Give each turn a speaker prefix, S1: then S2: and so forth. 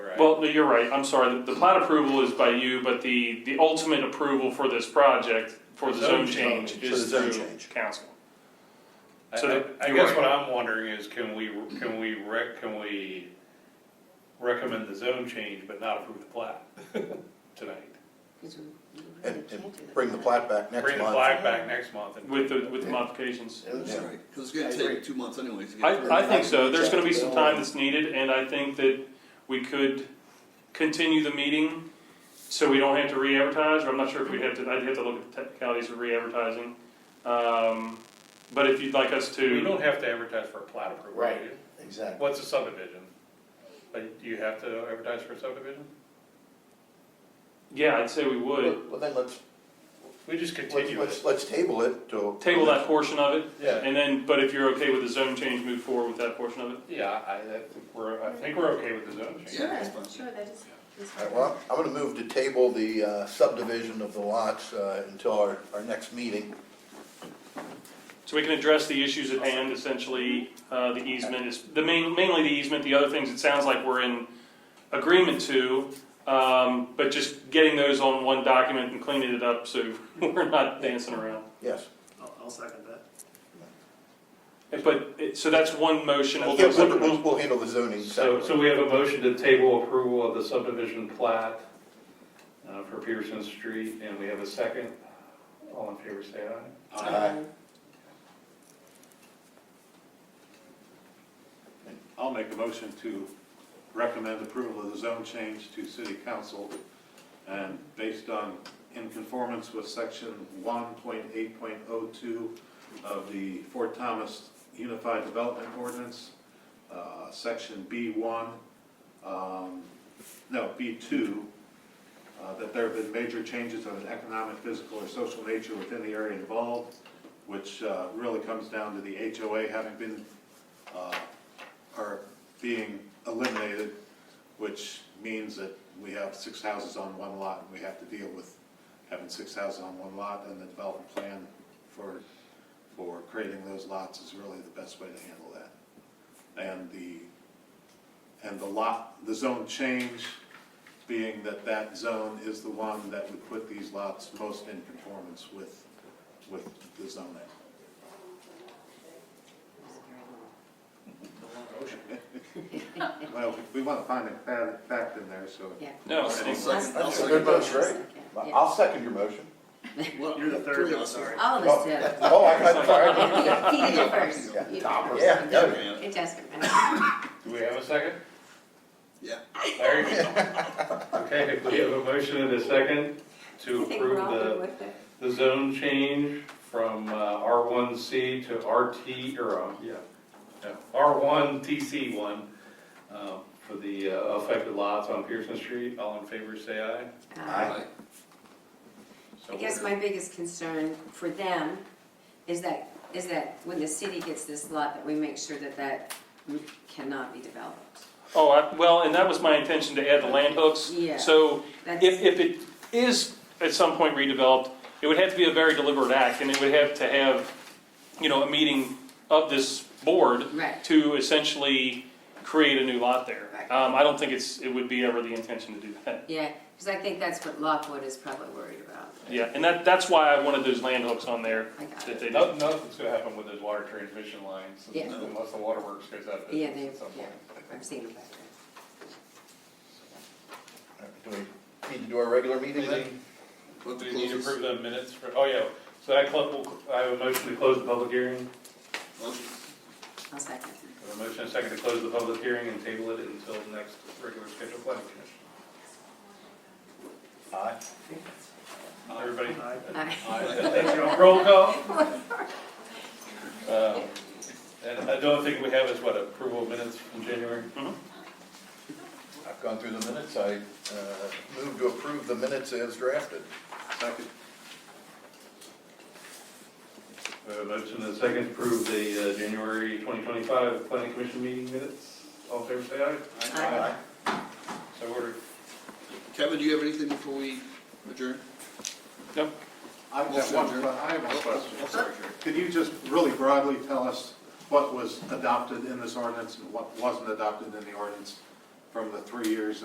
S1: right?
S2: Well, no, you're right, I'm sorry, the, the plat approval is by you, but the, the ultimate approval for this project, for the
S1: Zone
S2: zone change,
S1: change.
S3: For the
S2: is
S3: zone
S2: through
S3: change.
S2: council.
S1: I,
S2: so
S1: I- I
S2: you're
S1: guess
S2: right.
S1: what I'm wondering is, can we, can we rec, can we recommend the zone change but not approve the plat tonight?
S4: Because we- we really
S3: And,
S4: can't do
S3: and bring the plat back next
S1: Bring the
S3: month.
S1: plat back next month and.
S2: With the, with the modifications.
S3: Yeah.
S5: That's right, because it's gonna
S6: I agree.
S5: take two months anyways. to get
S2: I,
S5: through.
S2: I think so, there's gonna be some time that's needed, and I think that we could continue the meeting, so we don't have to re-advertise, or I'm not sure if we'd have to, I'd have to look at the technicalities of re-advertising. Um, but if you'd like us
S1: We
S2: to,
S1: don't have to advertise for a plat approval, do
S6: Right.
S1: you?
S6: Exactly.
S1: What's a subdivision? Like, do you have to advertise for a subdivision?
S2: yeah, I'd say we would,
S3: Well, then let's,
S1: We just
S3: let's,
S1: continue
S3: let's,
S1: it.
S3: let's table it till.
S2: table that portion of it,
S1: Yeah,
S2: and then, but if you're okay with the zone change, move forward with that portion of it.
S1: yeah, I, I think we're, I think we're okay with the zone change.
S5: Yeah, that's
S4: that.
S5: fine.
S4: Sure, sure, that is, is
S3: All right,
S4: fine.
S3: well, I'm gonna move to table the uh, subdivision of the lots, uh, until our, our next meeting.
S2: So we can address the issues at hand, essentially, uh, the easement is, the main, mainly the easement, the other things, it sounds like we're in agreement to, um, but just getting those on one document and cleaning it up, so we're not dancing around.
S3: Yes.
S6: I'll, I'll second that.
S2: But, it- so that's one motion, we'll do
S3: Yeah,
S2: a
S3: we'll,
S2: second
S3: we'll,
S2: motion.
S3: we'll handle the zoning
S1: So, so
S3: separately.
S1: we have a motion to table approval of the subdivision plat uh, for Pearson Street, and we have a second. All in favor, say aye.
S4: Um,
S3: Aye.
S7: I'll make a motion to recommend approval of the zone change to city council. And based on, in conformance with section one point eight point oh two of the Fort Thomas Unified Development Ordinance, uh, section B one, um, no, B two, uh, that there have been major changes of an economic, physical, or social nature within the area involved, which, uh, really comes down to the HOA having been, uh, are being eliminated, which means that we have six houses on one lot, and we have to deal with having six houses on one lot, and the development plan for, for creating those lots is really the best way to handle that. And the, and the lot, the zone change, being that that zone is the one that would put these lots most in conformance with, with the zoning. Well, we want to find a fa- fact in there, so.
S4: Yeah.
S2: No, I
S5: I'll
S2: think-
S5: second- I'll
S3: That's a
S5: second
S3: good
S5: that.
S3: motion, right?
S4: Yeah, yeah.
S3: I'll second your motion.
S5: Well,
S6: You're the third
S5: three of
S6: one,
S5: us
S6: sorry.
S5: are-
S4: All of us do.
S3: Oh, I, I'm sorry.
S4: He did it first.
S3: Yeah.
S4: You did it first.
S3: Yeah, yeah.
S4: It doesn't matter.
S1: Do we have a second?
S5: Yeah.
S1: Larry? Okay, we have a motion and a second to
S4: I think we're
S1: approve
S4: all good
S1: the,
S4: with it.
S1: the zone change from uh, R1C to RT, or, um, yeah, no, R1TC1 um, for the uh, affected lots on Pearson Street. All in favor, say aye.
S4: Um,
S5: Aye.
S1: So
S4: I guess
S1: ordered.
S4: my biggest concern for them is that, is that when the city gets this lot, that we make sure that that cannot be developed.
S2: Oh, I- well, and that was my intention to add the land hooks.
S4: Yeah.
S2: So
S4: That's-
S2: if, if it is at some point redeveloped, it would have to be a very deliberate act, and it would have to have, you know, a meeting of this board
S4: Right.
S2: to essentially create a new lot there.
S4: Right.
S2: Um, I don't think it's, it would be ever the intention to do that.
S4: Yeah, because I think that's what Lockwood is probably worried about.
S2: Yeah, and that, that's why I wanted those land hooks on there,
S4: I got
S2: that
S4: it.
S2: they,
S1: No- Nothing's gonna happen with those water transmission lines
S4: Yeah.
S1: unless the waterworks goes out of
S4: Yeah,
S1: business
S4: they,
S1: at some
S4: yeah,
S1: point.
S4: I've seen them back there.
S3: Do we need to do our regular meeting then?
S5: We'll have
S1: Do
S5: to
S1: we need to
S5: close
S1: approve
S5: this.
S1: the minutes for, oh yeah, so I cl- we'll- I have a motion to close the public hearing.
S5: Motion.
S4: I'll second.
S1: I have a motion and a second to close the public hearing and table it until the next regular scheduled planning commission.
S3: Aye.
S1: Everybody?
S6: Aye.
S4: Aye.
S1: Thank you. Roll call. Um, And I don't think we have is what, approval of minutes from January?
S3: I've gone through the minutes. I, uh, move to approve the minutes as drafted.
S7: Second,
S1: We have a motion and a second to approve the uh, January 2025 planning commission meeting minutes. All in favor, say aye.
S4: Aye.
S1: So ordered.
S5: Kevin, do you have anything before we adjourn?
S7: I have
S5: Motion
S7: one,
S5: adjourned.
S7: que- I have a question.
S5: Oh, sorry, Jerry.
S7: Could you just really broadly tell us what was adopted in this ordinance and what wasn't adopted in the ordinance from the three years